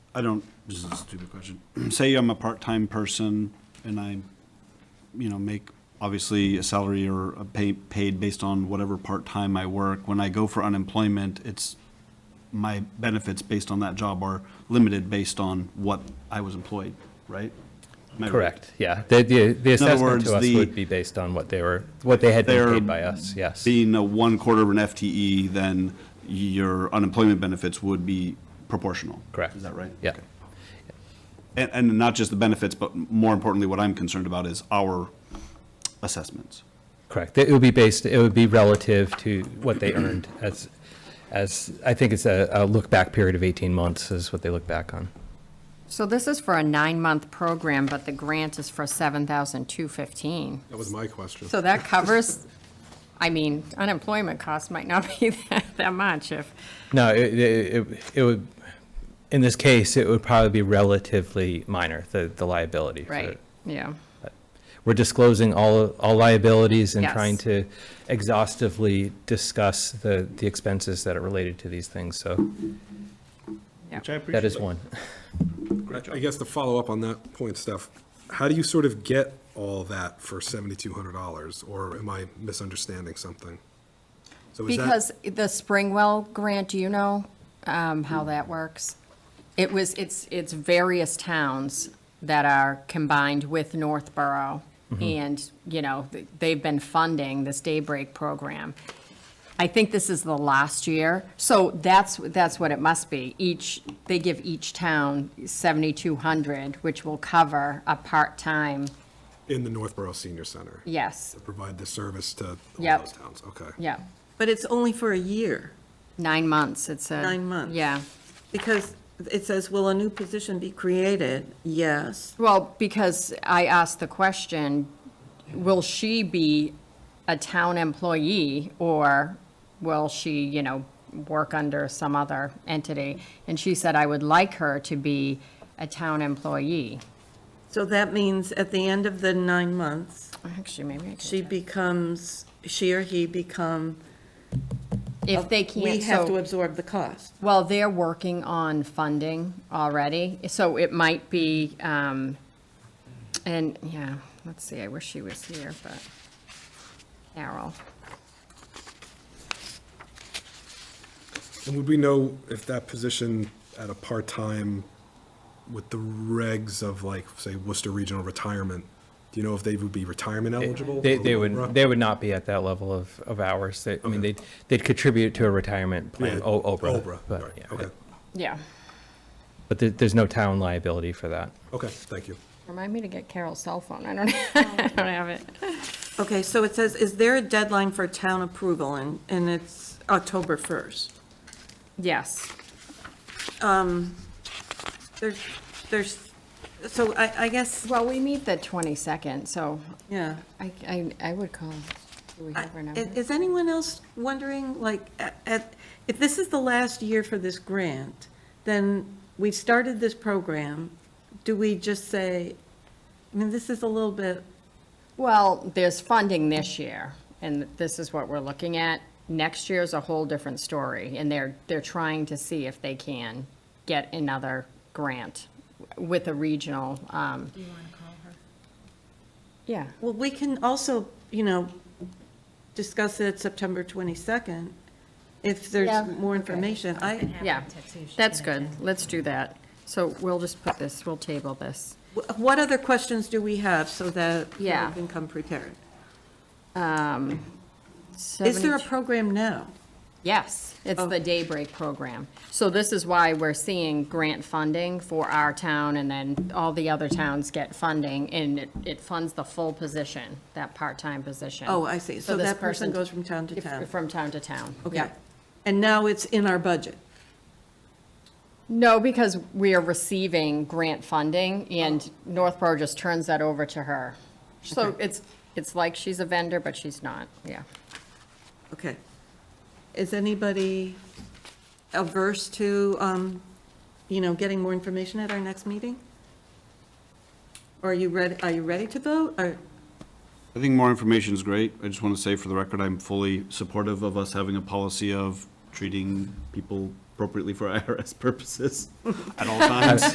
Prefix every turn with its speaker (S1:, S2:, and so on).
S1: I don't, this is a stupid question. Say I'm a part-time person and I, you know, make obviously a salary or a pay, paid based on whatever part-time I work. When I go for unemployment, it's, my benefits based on that job are limited based on what I was employed, right? Am I right?
S2: Correct, yeah. The, the, the assessment
S1: words,
S2: to us
S1: the-
S2: would be based on what they were, what they had been
S1: They're
S2: paid by us, yes.
S1: Being a one quarter of an FTE, then your unemployment benefits would be proportional.
S2: Correct.
S1: Is that right?
S2: Yeah.
S1: Okay. And, and not just the benefits, but more importantly, what I'm concerned about is our assessments.
S2: Correct. It would be based, it would be relative to what they earned as, as, I think it's a, a look-back period of 18 months is what they look back on.
S3: So this is for a nine-month program, but the grant is for seven thousand two fifteen.
S4: That was my question.
S3: So that covers, I mean, unemployment costs might not be that, that much if,
S2: No, it, it, it- it would, in this case, it would probably be relatively minor, the, the liability. for
S3: right,
S2: it.
S3: yeah.
S2: We're disclosing all, all liabilities and
S3: Yes.
S2: trying to exhaustively discuss the, the expenses that are related to these things, so that is one.
S4: I guess to follow up on that point, Steph, how do you sort of get all that for seventy-two hundred dollars, or am I misunderstanding something? So is that-
S3: Because the Springwell grant, do you know um, how that works? It was, it's, it's various towns that are combined with Northborough. And, you know, th- they've been funding this Daybreak program. I think this is the last year. So that's, that's what it must be. Each, they give each town 7,200, which will cover a part-time,
S4: In the Northborough Senior Center,
S3: yes,
S4: provide the service to all
S3: Yep.
S4: those towns, okay.
S3: yeah,
S5: But it's only for a year,
S3: nine months, it said.
S5: Nine months.
S3: Yeah.
S5: because it says, will a new position be created? Yes.
S3: Well, because I asked the question, will she be a town employee or will she, you know, work under some other entity? And she said, I would like her to be a town employee.
S5: So that means at the end of the nine months,
S3: Actually, maybe I
S5: she
S3: can.
S5: becomes, she or he become.
S3: If they
S5: We
S3: can't,
S5: have to
S3: so,
S5: absorb the cost.
S3: well, they're working on funding already, so it might be, um, and, yeah, let's see, I wish she was here, but, Carol.
S4: And would we know if that position at a part-time with the regs of like, say Worcester Regional Retirement, do you know if they would be retirement eligible?
S2: They,
S4: or
S2: they
S4: Laura?
S2: would, they would not be at that level of, of hours. They, I mean, they'd, they'd contribute to a retirement
S4: Yeah,
S2: plan, O- oh, Oprah.
S4: Oprah,
S2: but,
S4: right,
S2: yeah,
S4: okay,
S3: Yeah.
S2: But there, there's no town liability for that.
S4: okay, thank you.
S3: Remind me to get Carol's cell phone. I don't, Oh, I don't have it.
S5: Okay, so it says, is there a deadline for town approval? And, and it's October 1st.
S3: Yes.
S5: There's, there's, so I, I guess,
S3: Well, we meet the 22nd, so
S5: yeah.
S3: I, I, I would call. Do we
S5: I-
S3: have her number?
S5: i- Is anyone else wondering, like, a- at- if this is the last year for this grant, then we started this program, do we just say, I mean, this is a little bit,
S3: Well, there's funding this year, and this is what we're looking at. Next year's a whole different story, and they're, they're trying to see if they can get another grant with a regional, um. Do you want to call her? Yeah.
S5: well, we can also, you know, discuss it September 22nd, if
S3: Yeah.
S5: there's more information. I,
S3: Yeah, that's good. Let's do that. So we'll just put this, we'll table this.
S5: wh- what other questions do we have so that we
S3: Yeah.
S5: can come prepared? Is there a
S3: 72
S5: program now?
S3: Yes, it's
S5: Oh.
S3: the Daybreak program. So this is why we're seeing grant funding for our town, and then all the other towns get funding, and it, it funds the full position, that part-time position.
S5: Oh, I see. So
S3: this
S5: that person goes from town to
S3: if-
S5: town.
S3: From town to town.
S5: Okay.
S3: yeah.
S5: And now it's in our budget?
S3: No, because we are receiving grant funding, and
S5: Oh.
S3: Northborough just turns that over to her. So it's, it's like she's a vendor, but she's not, yeah.
S5: Okay. Is anybody averse to, um, you know, getting more information at our next meeting? Or are you ready, are you ready to vote? Or,
S1: I think more information is great. I just want to say for the record, I'm fully supportive of us having a policy of treating people appropriately for IRS purposes at all times.